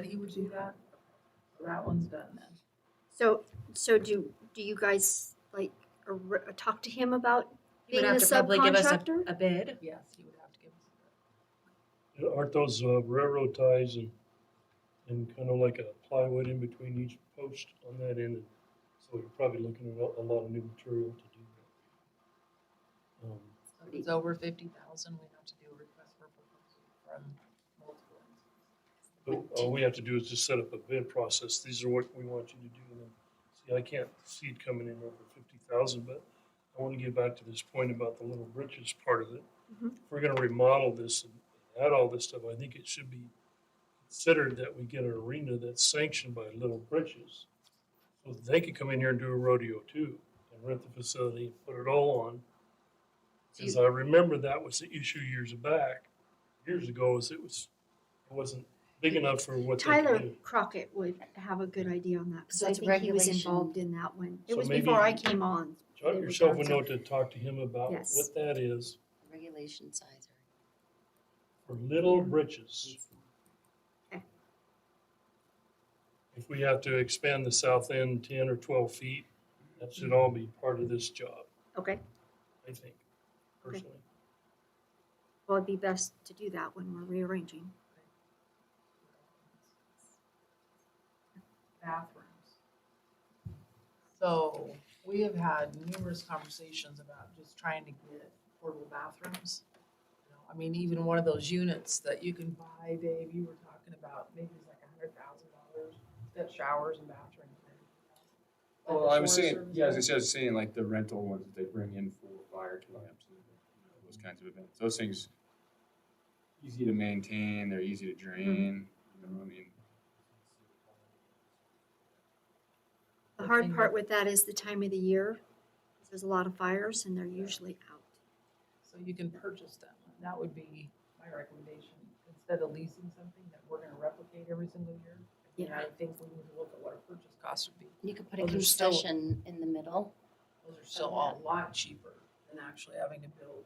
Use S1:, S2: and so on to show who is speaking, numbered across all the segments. S1: That he would do that? That one's done then.
S2: So, so do, do you guys like ar- talk to him about
S3: He would
S2: being a
S3: have to probably give us a,
S2: subcontractor?
S3: a bid.
S1: Yes, he would have to give us.
S4: Aren't those uh, railroad ties and, and kind of like a plywood in between each post on that end? So you're probably looking at a- a lot of new material to do that. Um,
S1: So If it's over fifty thousand, we have to do a request for proposal from multiple.
S4: But all we have to do is just set up a bid process. These are what we want you to do. And then, See, I can't see it coming in over fifty thousand, but I want to get back to this point about the little britches part of it.
S2: Mhm.
S4: If we're gonna remodel this and add all this stuff, I think it should be considered that we get an arena that's sanctioned by Little Britches. So that they could come in here and do a rodeo too and rent the facility and put it all on. Cause I remember that was the issue years back, years ago, is it was, it wasn't big enough for what they could
S2: Tyler
S4: do.
S2: Crockett would have a good idea on that, because I
S3: That's
S2: think he was
S3: regulation.
S2: involved in that one. It
S4: So
S2: was before I
S4: maybe-
S2: came on.
S4: Jot
S2: It was
S4: yourself a
S2: on
S4: note to talk to him about
S2: Yes.
S4: what that is
S5: Regulation size or.
S4: for Little Britches. If we have to expand the south end ten or twelve feet, that should all be part of this job,
S2: Okay,
S4: I
S2: Okay.
S4: think, personally.
S2: well, it'd be best to do that when we're rearranging.
S1: Bathrooms. So we have had numerous conversations about just trying to get portable bathrooms. You know, I mean, even one of those units that you can buy, Dave, you were talking about, maybe it's like a hundred thousand dollars, that showers and bathrooms. and everything else. Like
S6: Well,
S1: the
S6: I was
S1: shower
S6: saying,
S1: service
S6: yeah, as I
S1: area.
S6: said, I was saying like the rental ones that they bring in for fire camps and you know, those kinds of events. Those things easy to maintain, they're easy to
S5: Mm-hmm.
S6: drain, you know, I mean.
S2: The
S1: The
S2: hard
S1: thing
S2: part
S1: that-
S2: with that is the time of the year. There's a lot of fires and they're usually out.
S1: So you can purchase them. That would be my recommendation. Instead of leasing something that we're gonna replicate every single year. And I think we need to look at what our purchase cost would be.
S5: You could put a
S1: Well, there's still-
S5: concession in the middle.
S1: Those are still a lot cheaper than actually having to build.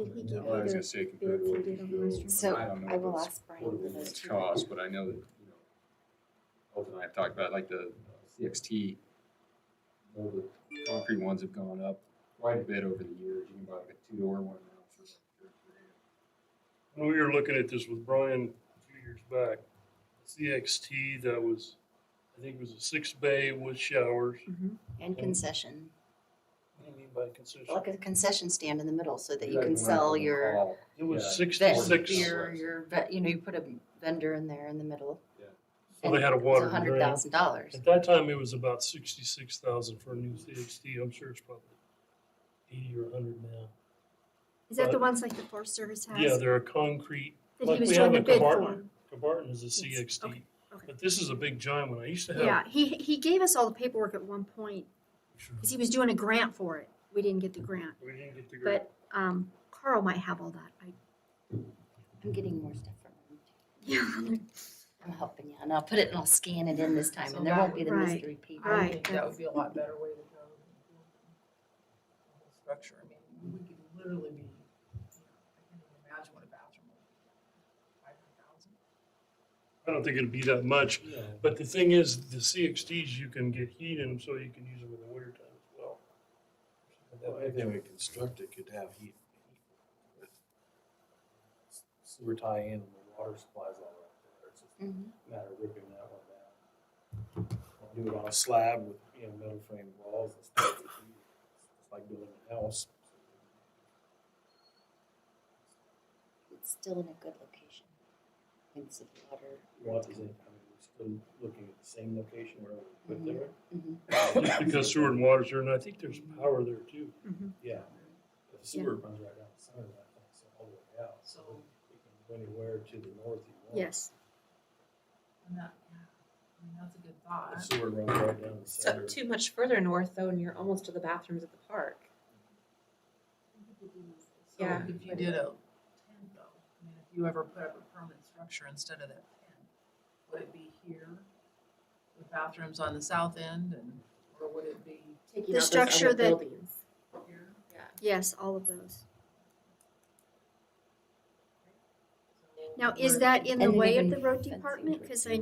S1: a
S2: Did
S1: new
S2: he
S1: bathroom.
S2: give
S6: Well, I was
S2: you
S6: gonna say compared
S2: bids
S6: to
S2: he
S6: what
S2: did on the
S6: you
S2: restaurant?
S6: do,
S5: So
S6: I don't know
S5: I
S6: if
S5: will
S6: it's
S5: ask Brian
S6: portable
S5: for
S6: and
S5: those
S6: it's
S5: two.
S6: cost, but I know that, you know, Holt and I have talked about like the CXT, all the concrete ones have gone up quite a bit over the years. You can buy like a two-door one now for like thirty grand.
S4: When we were looking at this with Brian a few years back, CXT that was, I think it was a six bay with showers.
S5: And
S4: Mm.
S5: concession.
S4: What do you mean by concession?
S5: Like a concession stand in the middle so that
S6: It's
S5: you
S6: like
S5: can
S6: when I
S5: sell
S6: was in
S5: your
S6: college.
S4: It was
S6: Yeah.
S4: six to
S6: That-
S5: vet,
S4: six.
S5: beer, your vet, you know, you put a vendor in there in the middle.
S4: So they had a
S5: It was
S4: water
S5: a hundred
S4: grant.
S5: thousand dollars.
S4: At that time, it was about sixty-six thousand for a new CXT. I'm sure it's probably eighty or hundred now.
S2: Is that the
S4: But-
S2: ones like the Forest Service has?
S4: Yeah, they're a concrete,
S2: That
S4: like
S2: he was
S4: we have
S2: doing the bid
S4: at
S2: for?
S4: Cabarton. Cabarton is a
S2: okay,
S4: CXT,
S2: okay.
S4: but this is a big giant one. I used to
S2: Yeah,
S4: have.
S2: he, he gave us all the paperwork at one point, because he was doing a grant for it. We didn't get the grant,
S4: We didn't get the grant.
S2: but, um, Carl might have all that. I,
S5: I'm getting more stuff from him.
S2: yeah,
S5: I'm helping you and I'll put it and I'll scan it in this time
S1: So
S5: and there won't be the
S2: that- right.
S5: mystery paper.
S1: I
S2: Right,
S1: think that would be a lot better way to go. than the Structure, I mean, we could literally be, you know, I can't even imagine what a bathroom would be. Five hundred thousand?
S4: I don't think it'd be that much, but the thing is, the CXTs, you can get heat in them, so you can use them in the wintertime as well.
S7: Well, Anything we construct it could have heat. with Sewer tie in, the water supplies all right there, it's just
S5: Mhm.
S7: a matter of ripping that one down. I'll Do it on a slab with, you know, metal frame walls and stuff, It's easy. It's like building a house.
S5: It's still in a good location. It's a water.
S7: What is it, I mean, we're still looking at the same location where we put there.
S5: Mhm.
S4: Just Because sewer and water's there, and I think there's power there too.
S2: mhm.
S7: Yeah, the sewer runs right down the center of that thing, so all the way out, so
S1: So-
S7: it can go anywhere to the north you want.
S2: yes.
S1: And that, yeah, I mean, that's a good thought.
S7: The sewer runs right down the
S3: So
S7: center.
S3: too much further north though, and you're almost to the bathrooms at the park.
S1: So
S3: Yeah.
S1: If you did a tent though, I mean, if you ever put up a permanent structure instead of that tent, would it be here? With bathrooms on the south end and, or would it be
S3: Taking
S2: The
S3: out those other
S2: structure that-
S3: buildings.
S1: here?
S3: Yeah.
S2: Yes, all of those.
S1: So
S2: Now, is
S1: we're-
S2: that in the
S5: And then
S2: way of
S5: even
S2: the road
S5: fencing
S2: department?
S5: would
S2: Because
S5: be
S2: I